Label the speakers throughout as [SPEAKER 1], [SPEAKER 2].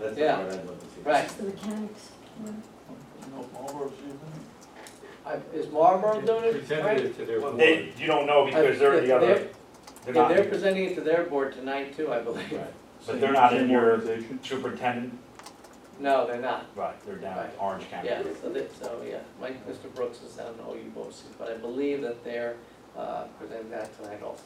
[SPEAKER 1] that's
[SPEAKER 2] Yeah.
[SPEAKER 1] what I'd love to see.
[SPEAKER 2] Right.
[SPEAKER 3] Just the mechanics.
[SPEAKER 4] No, Marlboro's even.
[SPEAKER 2] I- Is Marlboro doing it?
[SPEAKER 5] Presented
[SPEAKER 2] Frank?
[SPEAKER 5] it to their board.
[SPEAKER 6] They, you don't know because they're
[SPEAKER 2] If- if
[SPEAKER 6] the other,
[SPEAKER 2] they're-
[SPEAKER 6] they're
[SPEAKER 2] Yeah, they're
[SPEAKER 6] not,
[SPEAKER 2] presenting it to their board tonight too, I believe.
[SPEAKER 1] Right.
[SPEAKER 6] But they're not in
[SPEAKER 4] Same
[SPEAKER 6] your-
[SPEAKER 4] organization.
[SPEAKER 6] superintendent,
[SPEAKER 2] No, they're not.
[SPEAKER 6] right, they're down
[SPEAKER 2] Right.
[SPEAKER 6] in Orange County.
[SPEAKER 2] Yeah, so they, so, yeah, Mike, Mr. Brooks is down in OU BOCES, but I believe that they're, uh, presenting that tonight also.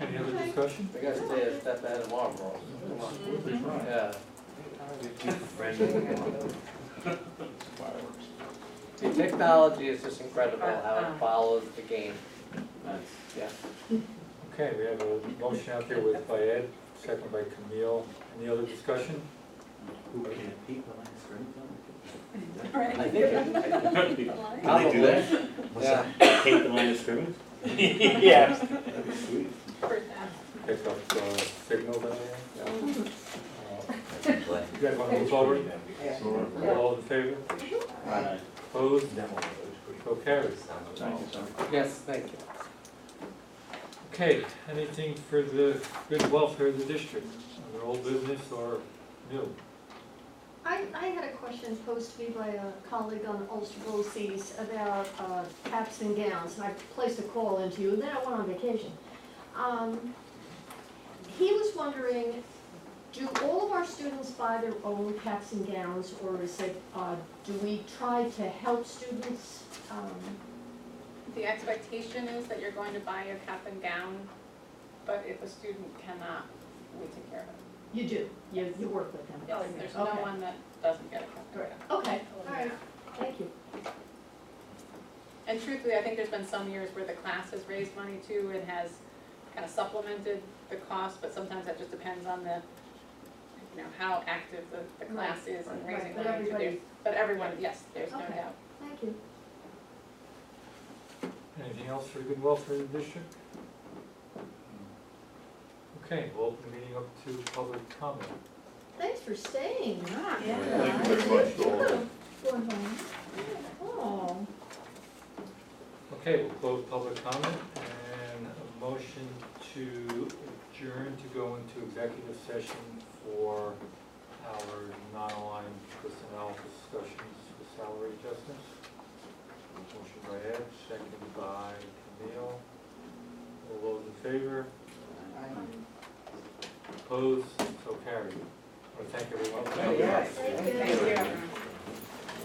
[SPEAKER 5] Any other discussion?
[SPEAKER 2] We gotta stay a step ahead of Marlboro, come on,
[SPEAKER 4] They try.
[SPEAKER 2] yeah.
[SPEAKER 4] Fireworks.
[SPEAKER 2] See, technology is just incredible how it follows the game,
[SPEAKER 1] That's-
[SPEAKER 2] yeah.
[SPEAKER 5] Okay, we have a motion out there with by Ed, second by Camille. Any other discussion?
[SPEAKER 1] Who can it be? Well, that's right.
[SPEAKER 2] I think it-
[SPEAKER 1] Can they do that?
[SPEAKER 2] What's that?
[SPEAKER 1] Take the line of scrimmage?
[SPEAKER 6] Yeah,
[SPEAKER 1] That'd be sweet.
[SPEAKER 5] Pick up the signal down there? Uh, You guys want to move forward?
[SPEAKER 1] Sorry.
[SPEAKER 5] All in favor?
[SPEAKER 1] Right.
[SPEAKER 5] Opposed?
[SPEAKER 1] That one.
[SPEAKER 5] So carries.
[SPEAKER 4] Thank you, sir.
[SPEAKER 2] Yes, thank you.
[SPEAKER 5] Okay, anything for the good welfare of the district, whether old business or new?
[SPEAKER 3] I, I had a question posed to me by a colleague on Ulster BOCES about uh, caps and gowns, and I placed a call into you, and then I went on vacation. Um, He was wondering, do all of our students buy their own caps and gowns, or is it, uh, do we try to help students? um,
[SPEAKER 7] The expectation is that you're going to buy your cap and gown, but if a student cannot, we take care of it.
[SPEAKER 3] You do, you, Oh, you work with them?
[SPEAKER 7] Yes, there's no
[SPEAKER 3] Okay.
[SPEAKER 7] one that doesn't get a cap and gown.
[SPEAKER 3] Okay, all right, thank you.
[SPEAKER 7] And truthfully, I think there's been some years where the class has raised money too and has kind of supplemented the cost, but sometimes that just depends on the, you know, how active the, the class is in
[SPEAKER 3] Right,
[SPEAKER 7] raising
[SPEAKER 3] but
[SPEAKER 7] money. So there's-
[SPEAKER 3] everybody,
[SPEAKER 7] But everyone, yes, there's no
[SPEAKER 3] Okay.
[SPEAKER 7] doubt.
[SPEAKER 3] thank you.
[SPEAKER 5] Anything else for the good welfare of the district? Okay, we'll open the meeting up to public comment.
[SPEAKER 3] Thanks for staying.
[SPEAKER 4] Thank you very much, all.
[SPEAKER 3] Going home. Oh,
[SPEAKER 5] Okay, we'll close public comment and a motion to adjourn to go into executive session for our non-aligned personnel discussions for salary adjustments. Motion by Ed, second by Camille. All those in favor? Opposed? So carried. I want to thank everyone.
[SPEAKER 3] thank you.
[SPEAKER 7] Thank you.